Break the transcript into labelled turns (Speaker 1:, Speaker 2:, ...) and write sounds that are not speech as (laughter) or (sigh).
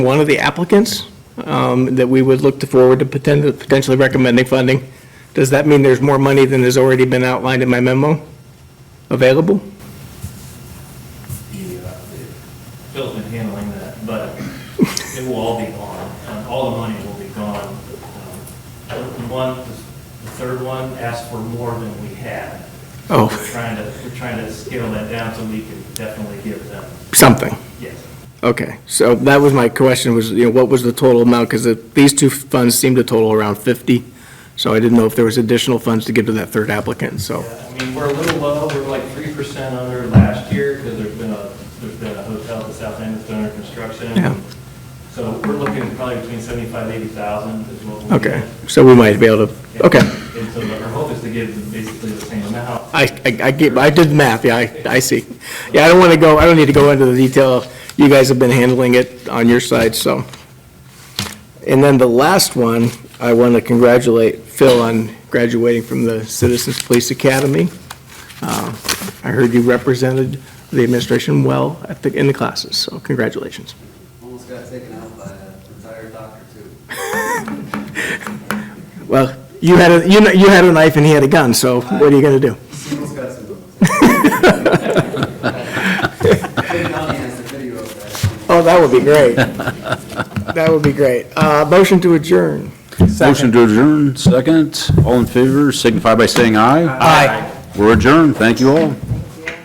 Speaker 1: one of the applicants um, that we would look to forward to poten- potentially recommending funding. Does that mean there's more money than has already been outlined in my memo available?
Speaker 2: Phil's been handling that, but it will all be gone, and all the money will be gone. Um, The one, the third one asked for more than we had.
Speaker 1: Oh. (laughs)
Speaker 2: We're trying to, we're trying to scale that down so we can definitely give them,
Speaker 1: Something.
Speaker 2: yes.
Speaker 1: Okay, so that was my question, was, you know, what was the total amount? Because these two funds seem to total around 50, so I didn't know if there was additional funds to give to that third applicant, so.
Speaker 2: Yeah, I mean, we're a little low, we're like three percent under last year, because there's been a, there's been a hotel at the south end that's been under
Speaker 1: Yeah.
Speaker 2: construction. So we're looking probably between seventy-five, eighty thousand is what we'll
Speaker 1: Okay,
Speaker 2: get.
Speaker 1: so we might be able to, okay.
Speaker 2: And so our hope is to give them basically the same amount.
Speaker 1: I, I, I get- I did the math, yeah, I, I see. Yeah, I don't want to go, I don't need to go into the detail. You guys have been handling it on your side, so. And then the last one, I want to congratulate Phil on graduating from the Citizens Police Academy. Uh, I heard you represented the administration well at the, in the classes, so congratulations.
Speaker 3: Almost got taken out by a retired doctor, too.
Speaker 1: Well, you had a, you kn- you had a knife and he had a gun, so what are you going to do? (laughs)
Speaker 3: Almost got some. (laughs) Kid County has a video of that.
Speaker 1: Oh, that would be great. That would be great. Uh, Motion to adjourn.
Speaker 4: Motion to adjourn, second. All in favor, signify by saying aye. Aye. We're adjourned. Thank you all.